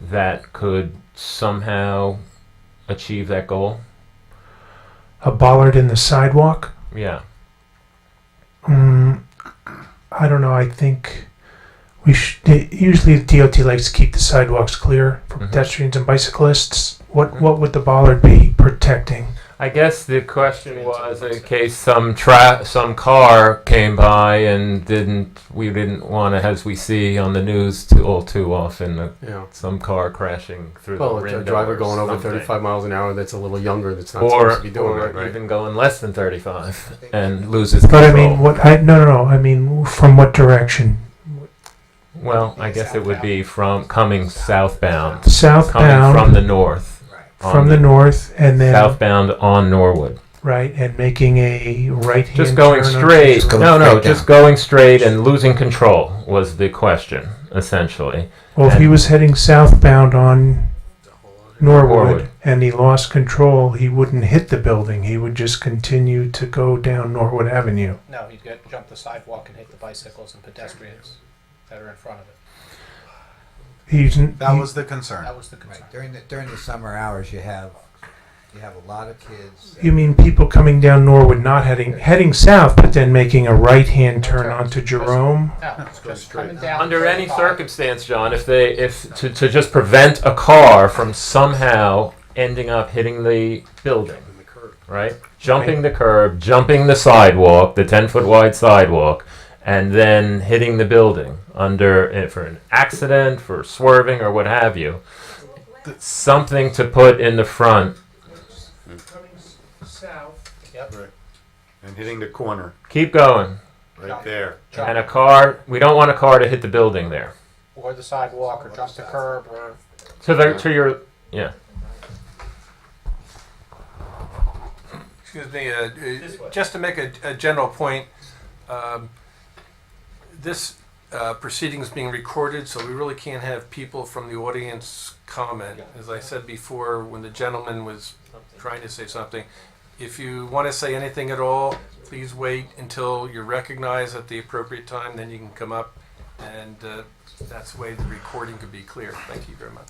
that could somehow achieve that goal? A bollard in the sidewalk? Yeah. Mm, I don't know. I think we should. Usually, the DOT likes to keep the sidewalks clear for Mhm. pedestrians and bicyclists. What Mhm. what would the bollard be protecting? I guess the question was in case some tra- some car came by and didn't we didn't want to, as we see on the news too, all too often, uh, Yeah. some car crashing through Well, the it's window a driver or going over something. 35 miles an hour that's a little younger that's not supposed or, to be doing or that, right? even going less than 35 and loses control. But I mean, what I no no no. I mean, from what direction? well, I guess it would be from coming southbound, coming Southbound from the north, from, on the north, and then southbound on Norwood. right, and making a right hand. Just going straight. just going no, no, straight just going straight and losing control was the question essentially. Well, if he was heading southbound on Norwood, Norwood. and he lost control, he wouldn't hit the building. He would just continue to go down Norwood Avenue. No, he'd get, jump the sidewalk and hit the bicycles and pedestrians that are in front of it. He's n- That he- was the concern. That was the concern. Right, during the, during the summer hours, you have, you have a lot of kids. You mean people coming down Norwood, not heading heading south, but then making a right hand turn onto Jerome? No, go just straight. coming down. Under any 35. circumstance, John, if they if to, to just prevent a car from somehow ending up hitting the building, right? Jumping the curb, jumping the sidewalk, the ten foot wide sidewalk, and then hitting the building under eh, for an accident, for swerving or what have you. Something to put in the front. South. Yep. And hitting the corner, Keep going. right there. Jump And a car, we don't want a car to hit the building there. Or the sidewalk, or jump the curb, or To the to your yeah. Excuse me, uh, uh, just to make a, a general point, um, this uh, proceeding is being recorded, so we really can't have people from the audience comment. As I said before, when the gentleman was trying to say something, if you want to say anything at all, please wait until you're recognized at the appropriate time, then you can come up, and uh, that's the way the recording could be clear. Thank you very much.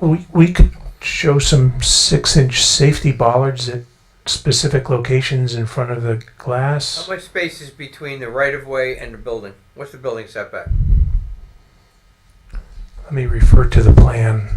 We we could show some six inch safety bollards at specific locations in front of the How glass. much space is between the right of way and the building? What's the building setback? Let me refer to the plan.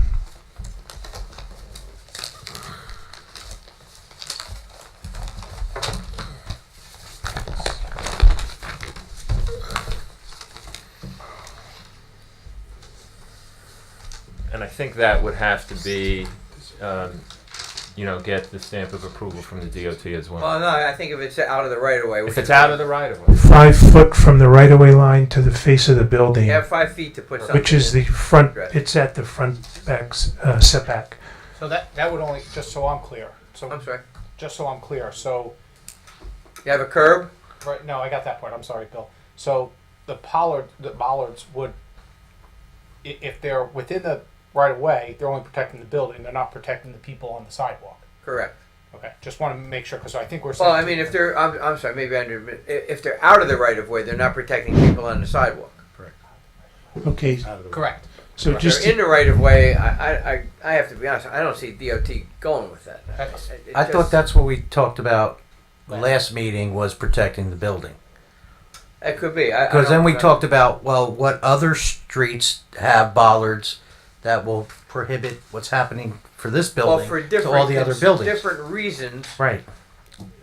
And I think that would have to be, um, you know, get the stamp of approval from the DOT as well. Well, no, I think if it's out of the right of way. If it's out of the right of way. Five foot from the right of way line to the face of the building, You have five feet to put something. which is in. the front. Right. It's at the front back s- uh, setback. so that that would only just so I'm clear. So I'm sorry. just so I'm clear. So You have a curb? right, no, I got that part. I'm sorry, Bill. So the Pollard, the bollards would, i- if they're within the right of way, they're only protecting the building. They're not protecting the people on the sidewalk. Correct. Okay, just want to make sure because I think we're. Well, saying- I mean, if they're, I'm, I'm sorry, maybe I under, i- if they're out of the right of way, they're not protecting people on the sidewalk. Okay, correct. so If just they're in the right of way, I, I, I- I have to be honest, I don't see DOT going with that. That's- It- it I thought just- that's what we talked about last meeting was protecting the building. It could be. I- I Because don't- then we I- talked about, well, what other streets have bollards that will prohibit what's happening for this Well, building for to different, all the other cons- buildings. different reasons, Right.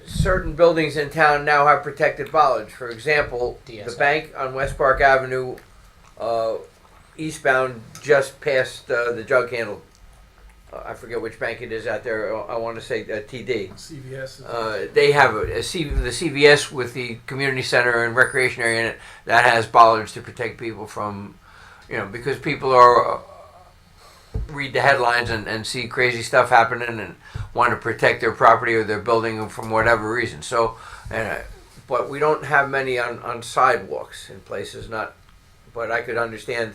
certain buildings in town now have protected bollards. For example, the DSI. bank on West Park Avenue, uh, eastbound, just past uh, the jug handle. Uh, I forget which bank it is out there. I want to say uh, TD. CVS is. Uh, they have a, a C, the CVS with the community center and recreation area in it that has bollards to protect people from, you know, because people are uh, read the headlines and, and see crazy stuff happening and want to protect their property or their building from whatever reason. So, uh, but we don't have many on, on sidewalks in places. Not, but I could understand.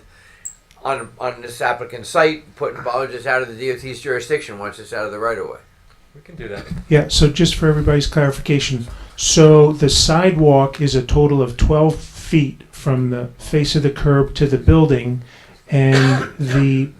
On, on this applicant's site, putting bollards out of the DOT's jurisdiction once it's out of the right of way. We can do that. Yeah, so just for everybody's clarification, so the sidewalk is a total of 12 feet from the face of the curb to the building, and the